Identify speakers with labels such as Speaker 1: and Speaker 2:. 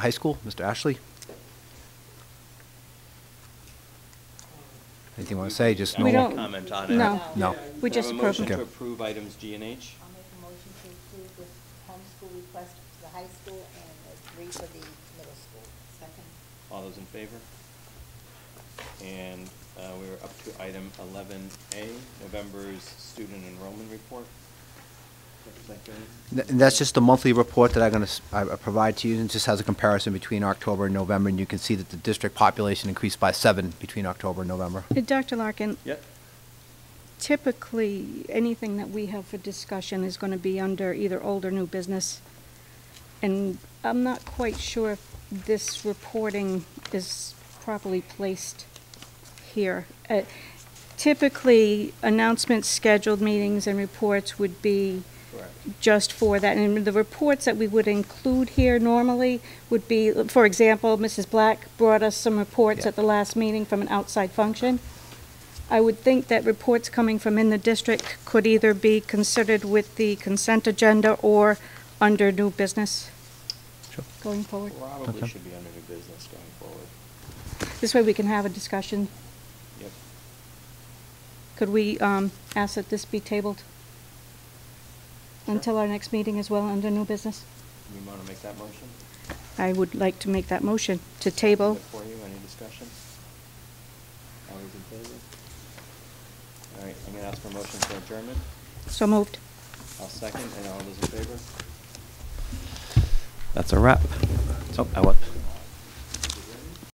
Speaker 1: High School, Mr. Ashley? Anything you want to say, just
Speaker 2: We
Speaker 1: normal?
Speaker 2: don't-
Speaker 3: Comment on it.
Speaker 2: no.
Speaker 1: No.
Speaker 2: We
Speaker 3: Do I have
Speaker 2: just
Speaker 3: a motion
Speaker 1: approve.
Speaker 3: to approve items G and H?
Speaker 4: I'll make a motion to approve this homeschool request for the high school and the three for the middle school. Second.
Speaker 3: All those in favor? And uh, we're up to item eleven A, November's student enrollment report. Looks like a-
Speaker 1: Th- and That's just the monthly report that I'm going to provide to you, and it just has a comparison between October and November, and you can see that the district population increased by seven between October and November.
Speaker 2: Uh, Dr. Larkin,
Speaker 3: Yep,
Speaker 2: typically, anything that we have for discussion is going to be under either old or new business. And I'm not quite sure if this reporting is properly placed here. Uh, Typically, announcements, scheduled meetings, and reports would be
Speaker 3: correct.
Speaker 2: just for that. And the reports that we would include here normally would be, for example, Mrs. Black brought us some reports
Speaker 1: Yeah.
Speaker 2: at the last meeting from an outside function. I would think that reports coming from in the district could either be considered with the consent agenda or under new business
Speaker 1: Sure.
Speaker 2: going forward.
Speaker 3: Probably
Speaker 1: Okay.
Speaker 3: should be under new business going forward.
Speaker 2: This way we can have a discussion.
Speaker 3: Yep.
Speaker 2: Could we um, ask that this be tabled
Speaker 3: Sure.
Speaker 2: until our next meeting as well under new business?
Speaker 3: You want to make that motion?
Speaker 2: I would like to make that motion to table.
Speaker 3: For you, any discussion? All those in favor? All right, I'm going to ask for a motion for adjournment.
Speaker 2: So moved.
Speaker 3: I'll second, and all those in favor? That's a wrap. Oh, I what?